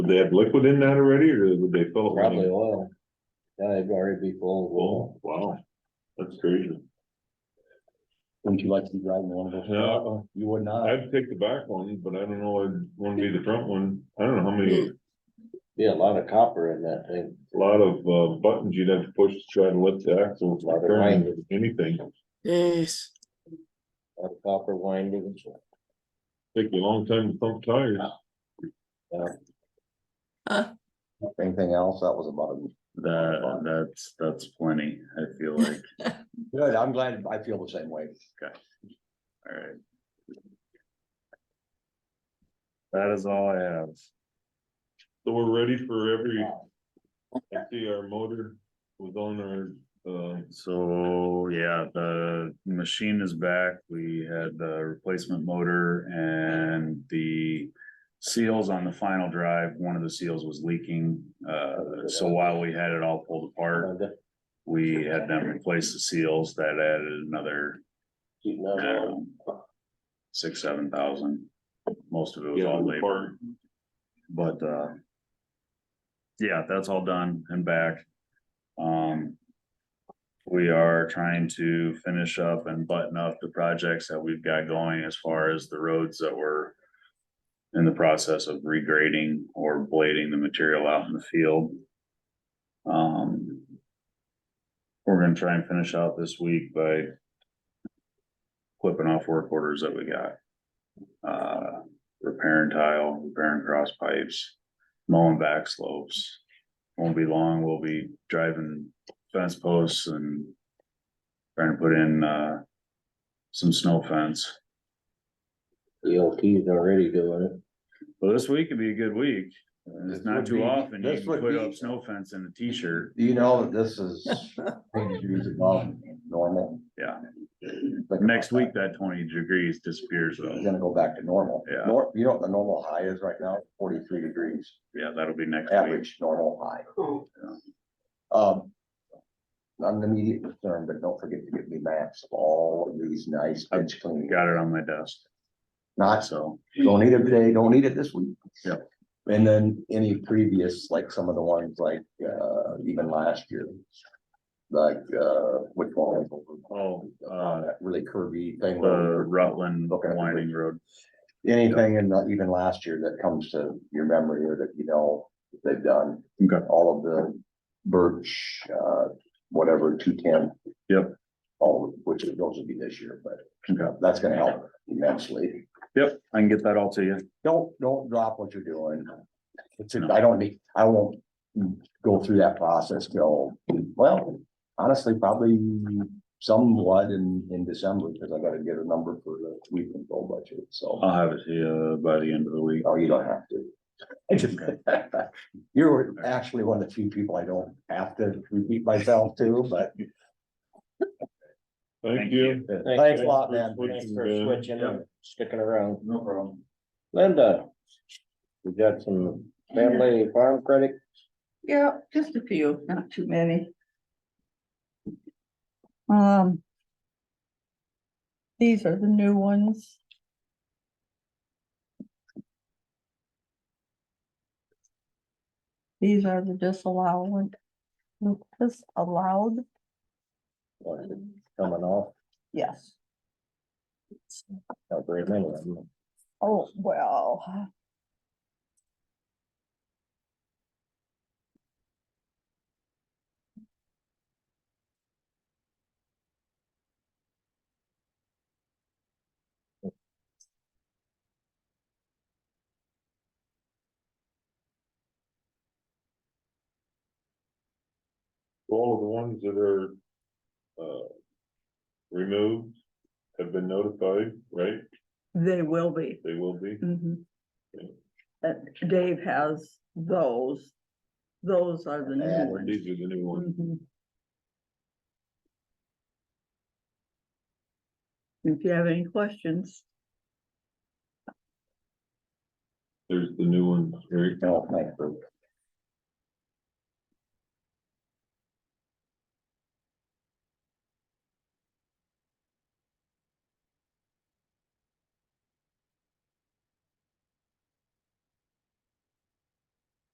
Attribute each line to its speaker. Speaker 1: Would they have liquid in that already, or would they fill it? with-
Speaker 2: Probably oil. Yeah, they'd already be full of oil.
Speaker 1: Oh, wow, that's crazy.
Speaker 2: Wouldn't you like to be driving one of those?
Speaker 1: No.
Speaker 2: You would not.
Speaker 1: I'd take the back one, but I don't know, I'd wanna be the front one. I don't know how many, a
Speaker 2: Be a lot of copper in that thing.
Speaker 1: lot of uh buttons you'd have to push to try to lift the axle.
Speaker 2: Lot of
Speaker 1: turn
Speaker 2: windings.
Speaker 1: Anything,
Speaker 3: Yes.
Speaker 2: A lot of copper windings.
Speaker 1: take you a long time to pump tires.
Speaker 2: Anything else? That was about it.
Speaker 4: That, that's, that's plenty, I feel like,
Speaker 2: Good, I'm glad. I feel the same way.
Speaker 4: alright. That is all I have.
Speaker 1: So we're ready for every, I see our motor was on our, uh,
Speaker 4: So, yeah, the machine is back. We had the replacement motor and the seals on the final drive. One of the seals was leaking. Uh, so while we had it all pulled apart,
Speaker 2: Keep
Speaker 4: we had them replace the seals that added another
Speaker 2: another one.
Speaker 4: um, six, seven thousand. Most of it was
Speaker 1: Yeah,
Speaker 4: all
Speaker 1: the
Speaker 4: labor. But, uh, yeah, that's all done and back. Um, we are trying to finish up and button up the projects that we've got going as far as the roads that were in the process of regrading or blading the material out in the field. Um, we're gonna try and finish out this week by clipping off work orders that we got. Uh, repairing tile, repairing cross pipes, mowing back slopes. Won't be long, we'll be driving fence posts and trying to put in, uh, some snow fence.
Speaker 2: The LT's already doing it.
Speaker 4: Well, this week could be a good week.
Speaker 5: This would
Speaker 4: It's not too
Speaker 5: be-
Speaker 4: often you
Speaker 5: this
Speaker 4: can
Speaker 5: would
Speaker 4: put
Speaker 5: be-
Speaker 4: up snow fence in a t-shirt.
Speaker 5: Do you know that this is things you use above normal?
Speaker 4: Yeah.
Speaker 5: Think about
Speaker 4: Next week,
Speaker 5: that.
Speaker 4: that twenty degrees disappears
Speaker 5: It's
Speaker 4: though.
Speaker 5: gonna go back to normal.
Speaker 4: Yeah.
Speaker 5: Nor, you know what the normal high is right now? Forty-three degrees,
Speaker 4: Yeah, that'll be next week.
Speaker 5: average normal high. Um. Not an immediate concern, but don't forget to give me maps of all of these nice bench clean.
Speaker 4: Got it on my desk,
Speaker 5: Not,
Speaker 4: so,
Speaker 5: don't need it today, don't need it this week.
Speaker 4: Yeah.
Speaker 5: And then any previous, like some of the ones like, uh, even last year. Like, uh, which one?
Speaker 4: oh,
Speaker 5: Uh,
Speaker 4: uh,
Speaker 5: that really curvy
Speaker 4: the
Speaker 5: thing.
Speaker 4: Uh,
Speaker 5: where-
Speaker 4: Rutland
Speaker 5: Okay.
Speaker 4: winding road.
Speaker 5: Anything in the- even last year that comes to your memory or that you know they've done,
Speaker 4: Okay.
Speaker 5: all of the birch, uh, whatever, two ten.
Speaker 4: Yep.
Speaker 5: All, of which those would be this year, but
Speaker 4: Okay.
Speaker 5: that's gonna help immensely.
Speaker 4: Yep, I can get that all to you.
Speaker 5: Don't, don't drop what you're doing. It's, I don't need, I won't go through that process till, well, honestly, probably somewhat in, in December, because I gotta get a number for the weed control budget, so.
Speaker 4: I'll have it to you uh, by the end of the week.
Speaker 5: Oh, you don't have to. I just- You're actually one of the few people I don't have to repeat myself to, but
Speaker 1: Thank
Speaker 4: Thank
Speaker 1: you.
Speaker 5: thanks a lot, man.
Speaker 2: Thanks for
Speaker 1: Yeah.
Speaker 2: switching and sticking around.
Speaker 4: No problem.
Speaker 2: Linda. We got some family farm credit.
Speaker 6: Yeah, just a few, not too many. Um. These are the new ones. These are the disallowed, disallowed,
Speaker 2: coming off.
Speaker 6: yes.
Speaker 2: Not very many of them.
Speaker 6: Oh, well.
Speaker 1: All of the ones that are, uh, removed have been notified, right?
Speaker 6: They will be.
Speaker 1: They will be.
Speaker 6: Mhm.
Speaker 1: Yeah.
Speaker 6: Uh, Dave has those. Those are the new
Speaker 2: Yeah.
Speaker 6: ones.
Speaker 1: These are the new ones.
Speaker 6: Mhm. If you have any questions,
Speaker 1: There's the new ones, Eric.
Speaker 5: you know, like,